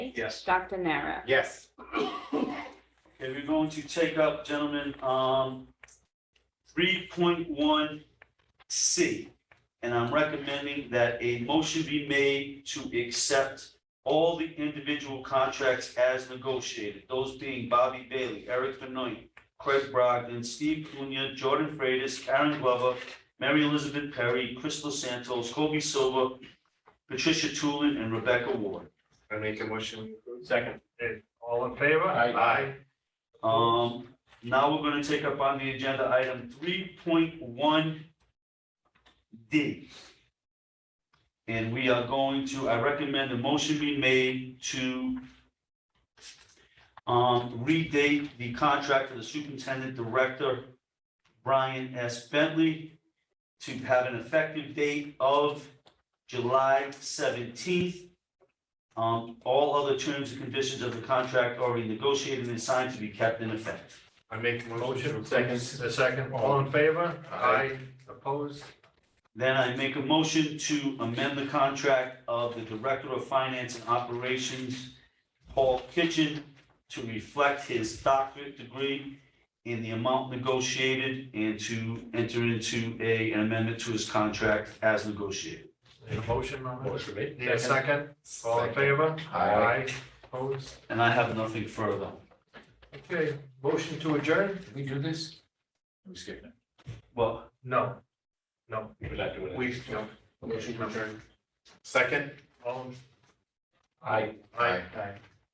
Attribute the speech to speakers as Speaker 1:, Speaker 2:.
Speaker 1: Lee.
Speaker 2: Yes.
Speaker 1: Dr. Nara.
Speaker 3: Yes.
Speaker 2: Okay, we're going to take up, gentlemen, um, three point one C. And I'm recommending that a motion be made to accept all the individual contracts as negotiated. Those being Bobby Bailey, Eric Benoit, Craig Brogdon, Steve Cunha, Jordan Freitas, Karen Glover, Mary Elizabeth Perry, Crystal Santos, Kobe Silva, Patricia Tulin, and Rebecca Ward.
Speaker 3: I make a motion.
Speaker 4: Second. Okay, All in favor?
Speaker 3: Aye.
Speaker 2: Um, now we're gonna take up on the agenda item three point one D. And we are going to, I recommend a motion be made to um, redate the contract for the superintendent director, Brian S. Bentley, to have an effective date of July seventeenth, um, all other terms and conditions of the contract already negotiated and signed to be kept in effect.
Speaker 3: I make a motion. to
Speaker 4: Motion,
Speaker 3: approve.
Speaker 4: second, a second, all in favor?
Speaker 3: Aye.
Speaker 4: Opposed?
Speaker 2: Then I make a motion to amend the contract of the Director of Finance and Operations, Paul Kitchen, to reflect his doctorate degree in the amount negotiated and to enter into a an amendment to his contract as negotiated.
Speaker 4: Need a motion on that?
Speaker 5: Motion made.
Speaker 4: Need a second, all in
Speaker 3: Second.
Speaker 4: favor?
Speaker 3: Aye.
Speaker 4: Opposed?
Speaker 2: And I have nothing further.
Speaker 4: Okay, motion to adjourn?
Speaker 5: Did we do this? We skipped it.
Speaker 2: Well,
Speaker 4: No, no,
Speaker 5: We're not doing it.
Speaker 4: we, no,
Speaker 5: Motion to adjourn.
Speaker 3: Second?
Speaker 4: all,
Speaker 5: Aye.
Speaker 4: aye, aye.